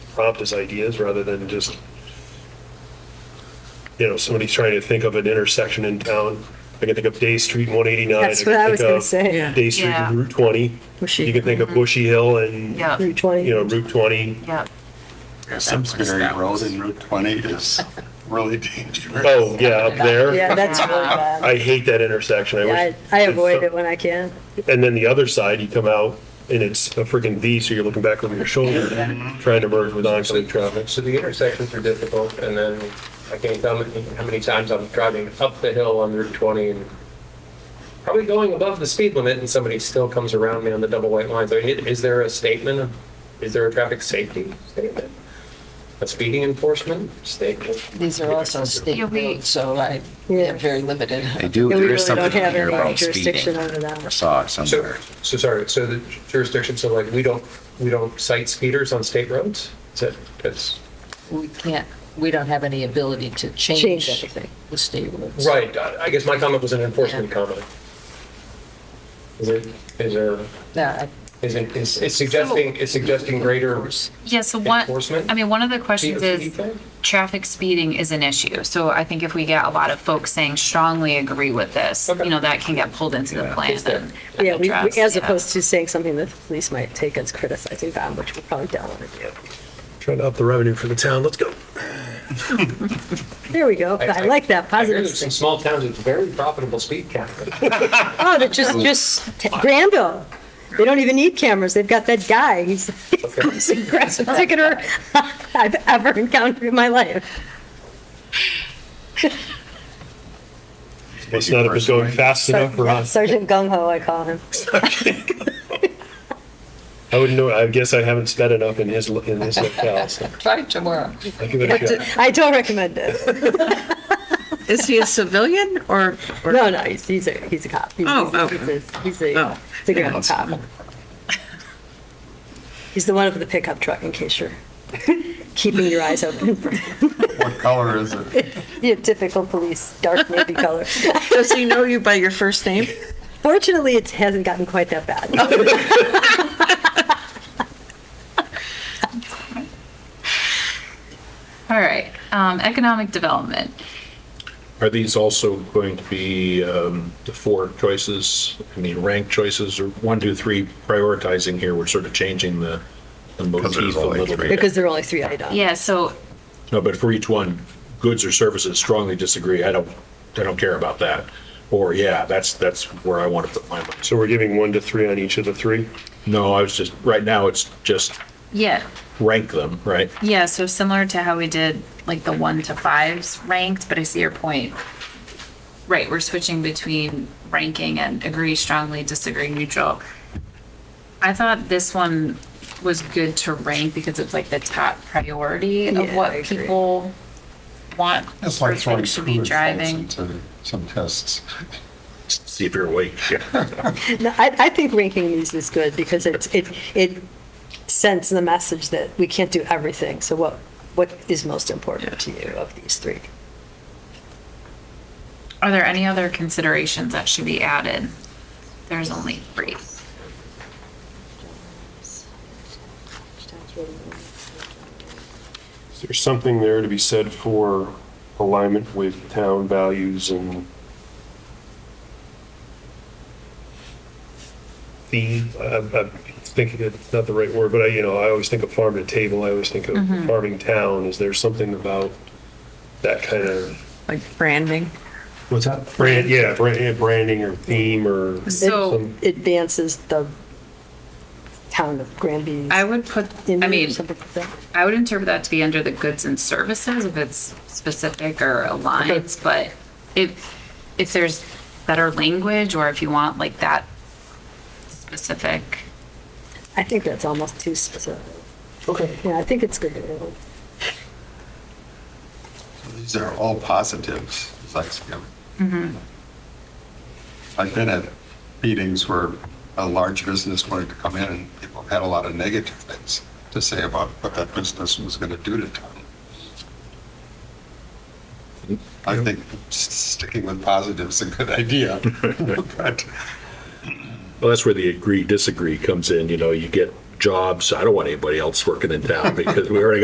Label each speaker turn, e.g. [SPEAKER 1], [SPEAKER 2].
[SPEAKER 1] prompt us ideas rather than just, you know, somebody's trying to think of an intersection in town. I can think of Day Street and 189.
[SPEAKER 2] That's what I
[SPEAKER 1] can
[SPEAKER 2] was
[SPEAKER 1] think
[SPEAKER 2] gonna
[SPEAKER 1] of
[SPEAKER 2] say.
[SPEAKER 3] Yeah. Mm-hmm.
[SPEAKER 1] Day Street and Route 20.
[SPEAKER 2] Bushy.
[SPEAKER 1] You can think of Bushy Hill and,
[SPEAKER 3] Yeah.
[SPEAKER 2] Route 20.
[SPEAKER 1] you know, Route 20.
[SPEAKER 3] Yeah.
[SPEAKER 4] Simsbury Road and Route 20 is really dangerous.
[SPEAKER 1] Oh, yeah, up
[SPEAKER 2] Yeah,
[SPEAKER 1] there.
[SPEAKER 2] that's really bad.
[SPEAKER 1] I hate that intersection. I
[SPEAKER 2] I,
[SPEAKER 1] wish.
[SPEAKER 2] I avoid it when I can.
[SPEAKER 1] And then the other side, you come out and it's a freaking V, so you're looking back over your shoulder,
[SPEAKER 3] Mm-hmm.
[SPEAKER 1] trying to merge with oncoming traffic.
[SPEAKER 5] So the intersections are difficult, and then I can't tell how many- how many times I'm driving up the hill on Route 20 and probably going above the speed limit, and somebody still comes around me on the double white lines. I mean, i- is there a statement? of- Is there a traffic safety statement? A speeding enforcement statement?
[SPEAKER 6] These are also state
[SPEAKER 3] Yeah, we-
[SPEAKER 6] roads, so I,
[SPEAKER 2] Yeah.
[SPEAKER 6] they're very limited.
[SPEAKER 7] They do,
[SPEAKER 2] Yeah, we
[SPEAKER 7] there is
[SPEAKER 2] really don't
[SPEAKER 7] something in
[SPEAKER 2] have
[SPEAKER 7] here
[SPEAKER 2] any
[SPEAKER 7] about
[SPEAKER 2] jurisdiction
[SPEAKER 7] speeding.
[SPEAKER 2] over
[SPEAKER 7] I
[SPEAKER 2] that.
[SPEAKER 7] saw it
[SPEAKER 5] So,
[SPEAKER 7] somewhere.
[SPEAKER 5] so sorry, so the jurisdiction, so like, we don't, we don't cite speeders on state roads? Is that, that's,
[SPEAKER 6] We can't, we don't have any ability to
[SPEAKER 2] Change
[SPEAKER 6] change
[SPEAKER 2] anything.
[SPEAKER 6] the state roads.
[SPEAKER 5] right, I I guess my comment was an enforcement comment. Is it, is there?
[SPEAKER 6] Yeah,
[SPEAKER 5] Is it, is it's suggesting, it's suggesting greater,
[SPEAKER 8] Yeah, so one,
[SPEAKER 5] Enforcement?
[SPEAKER 8] I mean, one of the questions
[SPEAKER 5] DOT
[SPEAKER 8] is,
[SPEAKER 5] thing?
[SPEAKER 8] traffic speeding is an issue. So I think if we get a lot of folks saying strongly agree with this,
[SPEAKER 5] Okay.
[SPEAKER 8] you know, that can get pulled into the
[SPEAKER 7] Yeah.
[SPEAKER 8] plan.
[SPEAKER 5] Is there-
[SPEAKER 8] and
[SPEAKER 2] Yeah, we-
[SPEAKER 8] addressed,
[SPEAKER 2] we, as
[SPEAKER 8] yeah.
[SPEAKER 2] opposed to saying something that the police might take as criticizing them, which we probably don't want to do.
[SPEAKER 1] Trying to up the revenue for the town. Let's go.
[SPEAKER 2] There we go. I like that
[SPEAKER 5] I hear
[SPEAKER 2] positive.
[SPEAKER 5] there's some
[SPEAKER 2] thing.
[SPEAKER 5] small towns with very profitable speed cameras.
[SPEAKER 2] Oh, they're just, just t- Granville. They don't even need cameras. They've got that guy. He's the most aggressive ticketer I've ever encountered in my life.
[SPEAKER 1] It's not if it's going fast enough for us.
[SPEAKER 2] Sergeant Gung Ho, I call him.
[SPEAKER 1] I wouldn't know. I guess I haven't sped enough in his in his locale. So
[SPEAKER 6] try tomorrow.
[SPEAKER 1] I'll give it a shot.
[SPEAKER 2] I don't recommend it.
[SPEAKER 3] Is he a civilian or? or-
[SPEAKER 2] No, no, he's, he's a, he's a cop. He's,
[SPEAKER 3] Oh,
[SPEAKER 2] he's,
[SPEAKER 3] oh.
[SPEAKER 2] He's a, he's a,
[SPEAKER 3] Oh.
[SPEAKER 2] he's a ground cop. He's the one with the pickup truck, in case you're keeping your eyes open. for
[SPEAKER 4] What color is it?
[SPEAKER 2] Your typical police, dark navy color.
[SPEAKER 3] Does he know you by your first name?
[SPEAKER 2] Fortunately, it hasn't gotten quite that bad.
[SPEAKER 8] All right, um, economic development.
[SPEAKER 9] Are these also going to be um, the four choices, I mean, ranked choices, or one, two, three prioritizing here? We're sort of changing the the
[SPEAKER 4] there's
[SPEAKER 9] motif a
[SPEAKER 4] only
[SPEAKER 9] little
[SPEAKER 4] three.
[SPEAKER 9] bit.
[SPEAKER 2] Because there are only three items.
[SPEAKER 8] Yeah, so
[SPEAKER 9] No, but for each one, goods or services strongly disagree. I don't, I don't care about that. Or, yeah, that's, that's where I want to put my money.
[SPEAKER 1] So we're giving one to three on each of the three.
[SPEAKER 9] No, I was just, right now, it's just
[SPEAKER 8] yeah,
[SPEAKER 9] rank them, right?
[SPEAKER 8] yeah, so similar to how we did like the one to fives ranked, but I see your point. Right, we're switching between ranking and agree strongly, disagree neutral. I thought this one was good to rank because it's like the top priority of
[SPEAKER 2] Yeah, I
[SPEAKER 8] what
[SPEAKER 2] agree.
[SPEAKER 8] people want.
[SPEAKER 4] It's like
[SPEAKER 8] or
[SPEAKER 4] throwing
[SPEAKER 8] should be
[SPEAKER 4] food
[SPEAKER 8] driving.
[SPEAKER 4] into some tests.
[SPEAKER 9] See if you're awake.
[SPEAKER 2] No, I, I think ranking these is good because it, it, it sends the message that we can't do everything. So what, what is most important to you of these three?
[SPEAKER 8] Are there any other considerations that should be added? There's only three.
[SPEAKER 1] Is there something there to be said for alignment with town values and the, I- I'm thinking it's not the right word, but I, you know, I always think of farm to table. I always think of farming town. Is there something about that kind of?
[SPEAKER 3] Like branding?
[SPEAKER 1] What's that? Brand, yeah, brand, yeah, branding or theme or
[SPEAKER 8] So
[SPEAKER 1] some,
[SPEAKER 2] Advances the town of Granby.
[SPEAKER 8] I would put,
[SPEAKER 2] in
[SPEAKER 8] I
[SPEAKER 2] or
[SPEAKER 8] mean,
[SPEAKER 2] something like that.
[SPEAKER 8] I would interpret that to be under the goods and services if it's specific or aligns, but if, if there's better language or if you want like that specific,
[SPEAKER 2] I think that's almost too specific.
[SPEAKER 5] Okay.
[SPEAKER 2] Yeah, I think it's good. to-
[SPEAKER 4] These are all positives, it's like, you know. I've been at meetings where a large business wanted to come in and people had a lot of negative things to say about what that business was going to do to town. I think s- sticking with positives is a good idea. But
[SPEAKER 9] Well, that's where the agree, disagree comes in, you know, you get jobs. I don't want anybody else working in town because we already